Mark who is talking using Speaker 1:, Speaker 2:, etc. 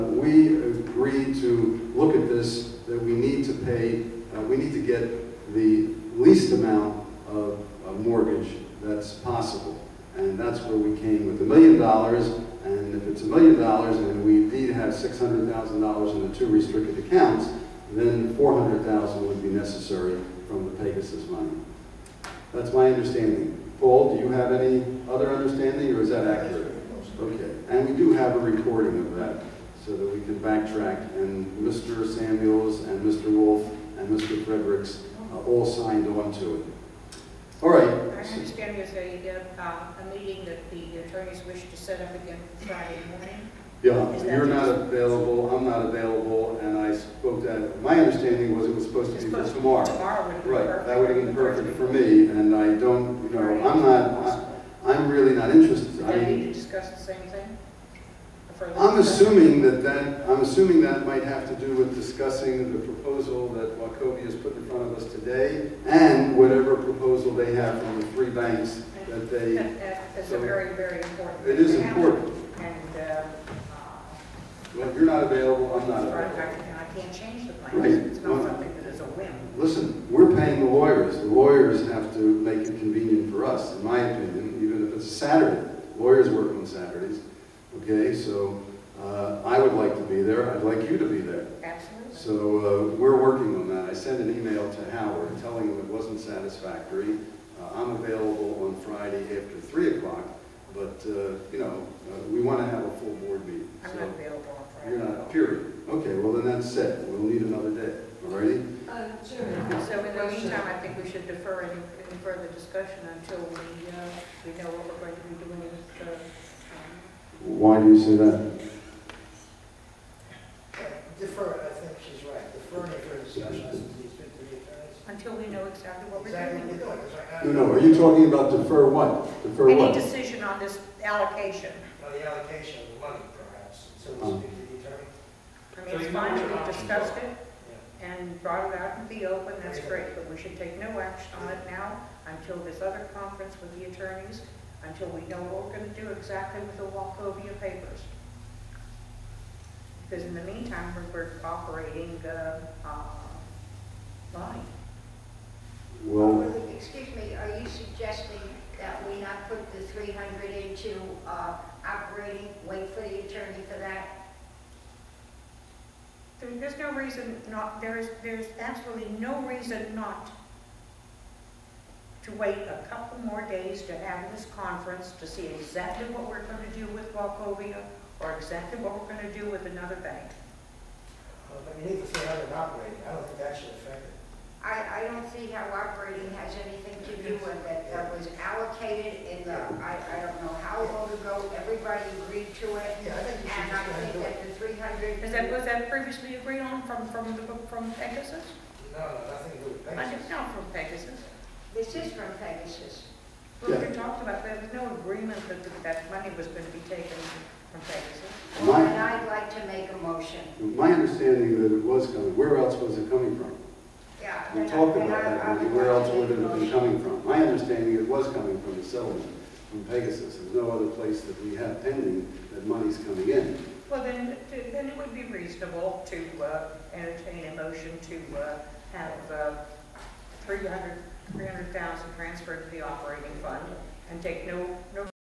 Speaker 1: to look at this, that we need to pay, uh, we need to get the least amount of of mortgage that's possible. And that's where we came with a million dollars, and if it's a million dollars and we indeed have six hundred thousand dollars in the two restricted accounts, then four hundred thousand would be necessary from the Pegasus money. That's my understanding. Paul, do you have any other understanding, or is that accurate? Okay, and we do have a recording of that, so that we can backtrack, and Mr. Samuels and Mr. Wolf and Mr. Fredericks uh, all signed on to it. All
Speaker 2: I
Speaker 1: right.
Speaker 2: understand there's a, uh, a meeting that the attorneys wish to set up again Friday morning.
Speaker 1: Yeah,
Speaker 2: Is that
Speaker 1: you're not
Speaker 2: just-
Speaker 1: available, I'm not available, and I spoke to, my understanding was it was supposed to be for tomorrow.
Speaker 2: Tomorrow would be perfect.
Speaker 1: Right, that would have been perfect for me, and I don't, you know, I'm not, I- I'm really not interested.
Speaker 2: Do
Speaker 1: I
Speaker 2: they
Speaker 1: mean,
Speaker 2: need to discuss the same thing? Or further
Speaker 1: I'm
Speaker 2: discussion?
Speaker 1: assuming that that, I'm assuming that might have to do with discussing the proposal that Wachovia has put in front of us today, and whatever proposal they have from the three banks that they,
Speaker 2: That- that- That's a very, very important.
Speaker 1: it is
Speaker 2: thing to happen.
Speaker 1: important.
Speaker 2: And, uh, uh,
Speaker 1: Well, you're not available, I'm not
Speaker 2: right,
Speaker 1: available.
Speaker 2: I and I can't change the plan.
Speaker 1: Right.
Speaker 2: It's not something that is a whim.
Speaker 1: Listen, we're paying the lawyers, the lawyers have to make it convenient for us, in my opinion, even if it's a Saturday. Lawyers work on Saturdays, okay, so, uh, I would like to be there, I'd like you to be there.
Speaker 2: Absolutely.
Speaker 1: So uh, we're working on that. I sent an email to Howard telling him it wasn't satisfactory. Uh, I'm available on Friday after 3 o'clock, but, uh, you know, uh, we want to have a full board meeting.
Speaker 2: I'm not
Speaker 1: So
Speaker 2: available on Friday.
Speaker 1: you're not, period. Okay, well then that's it. We'll need another day, all righty?
Speaker 3: Uh, Sure.
Speaker 2: So in the
Speaker 3: Question.
Speaker 2: meantime, I think we should defer any, any further discussion until we, uh, we know what we're going to be doing with, uh, um,
Speaker 1: Why do you say that?
Speaker 4: Defer, it. I think she's right, deferring it for discussion, I think it's good to the attorneys.
Speaker 2: until we know exactly what we're
Speaker 4: Exactly what
Speaker 2: doing.
Speaker 4: you're doing, 'cause right now.
Speaker 1: No, no, are you talking about defer what? Defer
Speaker 2: Any
Speaker 1: what?
Speaker 2: decision on this allocation,
Speaker 4: Well, the allocation of the money perhaps, so
Speaker 1: Oh.
Speaker 4: we'll speak to the attorney.
Speaker 2: I mean, it's fine, we've discussed it
Speaker 4: Yeah.
Speaker 2: and brought it out in the open, that's great, but we should take no action on it now until this other conference with the attorneys, until we know what we're gonna do exactly with the Wachovia papers. Because in the meantime, we're, we're operating, uh, uh, line.
Speaker 1: Well,
Speaker 5: Excuse me, are you suggesting that we not put the 300 into uh, operating, wait for the attorney for that?
Speaker 2: There, there's no reason not, there is, there's absolutely no reason not to wait a couple more days to have this conference to see exactly what we're gonna do with Wachovia or exactly what we're gonna do with another bank.
Speaker 4: Well, But you need to see how they're operating, I don't think that should affect it.
Speaker 5: I, I don't see how operating has anything to do with it. That was allocated in the, I, I don't know how long ago, everybody agreed to it.
Speaker 4: Yeah, I think you should
Speaker 5: And
Speaker 4: just
Speaker 5: I
Speaker 4: go ahead and do
Speaker 5: think that
Speaker 4: it.
Speaker 5: the 300.
Speaker 2: Is that, was that previously agreed on from, from the, from Pegasus?
Speaker 4: No, no, nothing to do with
Speaker 2: I didn't
Speaker 4: Pegasus.
Speaker 2: know from Pegasus.
Speaker 5: This is from Pegasus.
Speaker 2: Well,
Speaker 1: Yeah.
Speaker 2: we talked about, there was no agreement that, that- that money was gonna be taken from Pegasus.
Speaker 5: And
Speaker 1: My-
Speaker 5: I'd like to make a motion.
Speaker 1: my understanding that it was coming, where else was it coming from?
Speaker 5: Yeah.
Speaker 1: We
Speaker 5: then I-
Speaker 1: talked
Speaker 5: then
Speaker 1: about
Speaker 5: I- I
Speaker 1: that, maybe where else
Speaker 5: like to
Speaker 1: would it
Speaker 5: make a
Speaker 1: have been
Speaker 5: motion.
Speaker 1: coming from? My understanding, it was coming from the settlement, from Pegasus. There's no other place that we have pending that money's coming in.
Speaker 2: Well, then, then it would be reasonable to uh, entertain a motion to uh, have uh, 300 300,000 transferred to the operating fund and take no, no